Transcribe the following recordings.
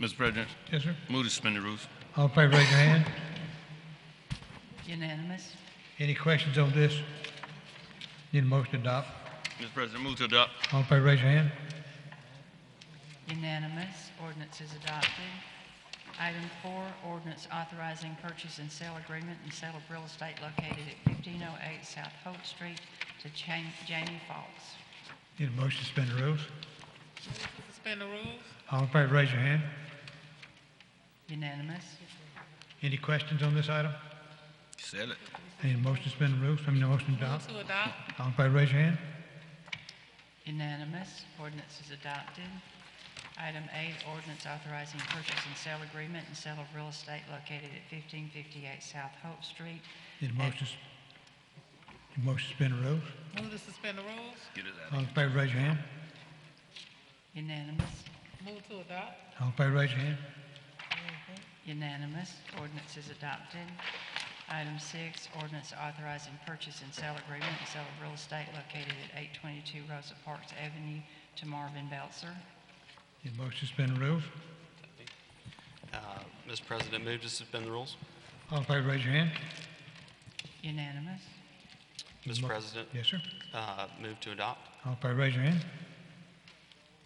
Mr. President, Yes, sir. move to suspend the rules. All in favor, raise your hand. Unanimous? Any questions on this? Need a motion to adopt. Mr. President, move to adopt. All in favor, raise your hand. Unanimous. Ordinance is adopted. Item four, ordinance authorizing purchase and sale agreement and sale of real estate located at 1508 South Holt Street to Jan- Jamie Fox. Need a motion to suspend the rules. Suspend the rules. All in favor, raise your hand. Unanimous? Any questions on this item? Sell it. Need a motion to suspend the rules, I mean, a motion to Move adopt. to adopt. All in favor, raise your hand. Unanimous. Ordinance is adopted. Item eight, ordinance authorizing purchase and sale agreement and sale of real estate located at 1558 South Hope Street. Need a motion, to s- need a motion to suspend the rules. Move to suspend the rules. Get it out. All in favor, raise your hand. Unanimous. Move to adopt. All in favor, raise your hand. Unanimous. Ordinance is adopted. Item six, ordinance authorizing purchase and sale agreement and sale of real estate located at 822 Rosa Parks Avenue to Marvin Belzer. Need a motion to suspend the rules. Uh, Mr. President, move to suspend the rules. All in favor, raise your hand. Unanimous. Mr. Mo- President, Yes, sir. uh, move to adopt. All in favor, raise your hand.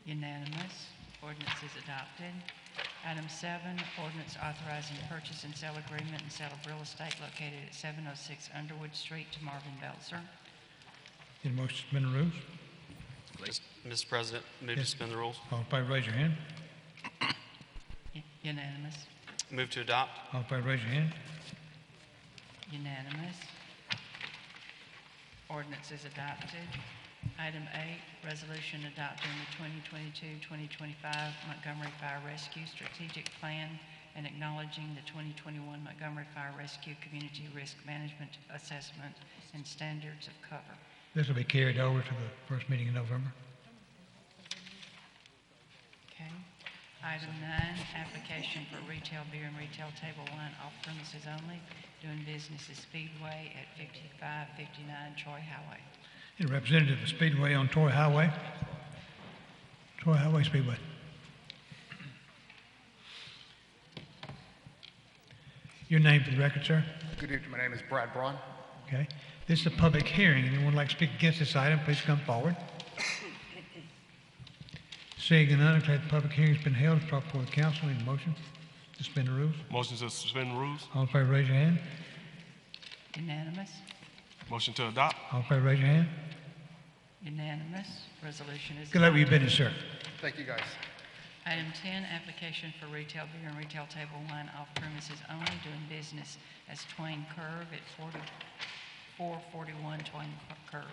Unanimous. Ordinance is adopted. Item seven, ordinance authorizing purchase and sale agreement and sale of real estate located at 706 Underwood Street to Marvin Belzer. Need a motion to suspend the rules. Mis- Mr. President, move to Yes. suspend the rules. All in favor, raise your hand. U- Unanimous. Move to adopt. All in favor, raise your hand. Unanimous. Ordinance is adopted. Item eight, resolution adopting the 2022-2025 Montgomery Fire Rescue Strategic Plan and acknowledging the 2021 Montgomery Fire Rescue Community Risk Management Assessment and Standards of Cover. This will be carried over to the first meeting in November. Okay. Item nine, application for retail beer and retail table wine off premises only, doing business at Speedway at 5559 Troy Highway. Need a representative of Speedway on Troy Highway. Troy Highway Speedway. Your name for the record, sir? Good evening, my name is Brad Braun. Okay. This is a public hearing. Anyone would like to speak against this item, please come forward. Seeing none, I declare the public hearing's been held. It's brought before the council. Need a motion to suspend the rules? Motion to suspend rules. All in favor, raise your hand. Unanimous? Motion to adopt. All in favor, raise your hand. Unanimous. Resolution is Good luck with your adopted. business, sir. Thank you, guys. Item 10, application for retail beer and retail table wine off premises only, doing business as Twain Curve at 40 441 Twain Curve.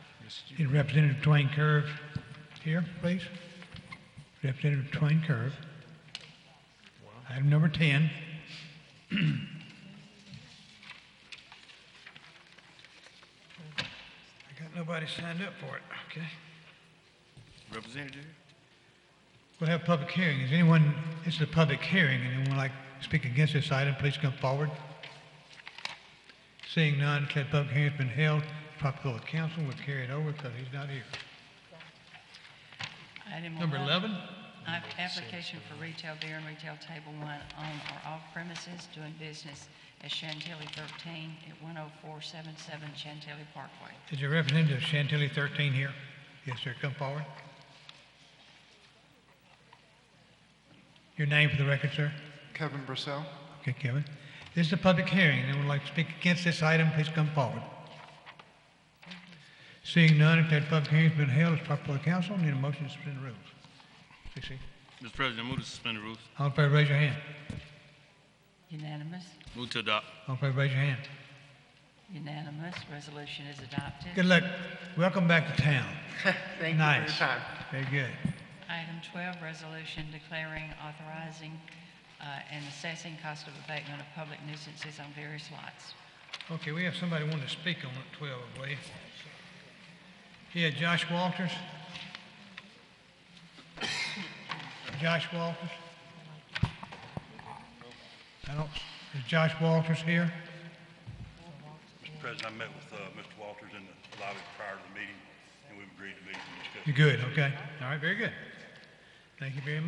Need Representative Twain Curve here, please. Representative Twain Curve. Item number 10. I got nobody signed up for it, okay. Representative? We'll have a public hearing. Is anyone, this is a public hearing, and anyone like to speak against this item, please come forward. Seeing none, declare the public hearing's been held. Proper of council will carry it over because he's not here. Item Number 11? App- Application for retail beer and retail table wine on or off premises, doing business as Chantilly 13 at 10477 Chantilly Parkway. Is your representative Chantilly 13 here? Yes, sir, come forward. Your name for the record, sir? Kevin Brissell. Okay, Kevin. This is a public hearing. Anyone would like to speak against this item, please come forward. Seeing none, if that public hearing's been held, it's proper for the council. Need a motion to suspend the rules. CC. Mr. President, move to suspend the rules. All in favor, raise your hand. Unanimous? Move to adopt. All in favor, raise your hand. Unanimous. Resolution is adopted. Good luck. Welcome back to town. Thank you for your Nice. time. Very good. Item 12, resolution declaring, authorizing, uh, and assessing cost of abatement of public nuisances on various lots. Okay, we have somebody wanting to speak on it, 12, I believe. Yeah, Josh Walters. Josh Walters. I don't, is Josh Walters here? Mr. President, I met with uh, Mr. Walters in the lobby prior to the meeting, and we've agreed to meet and discuss. You're good, okay. All right, very good. Thank you very much.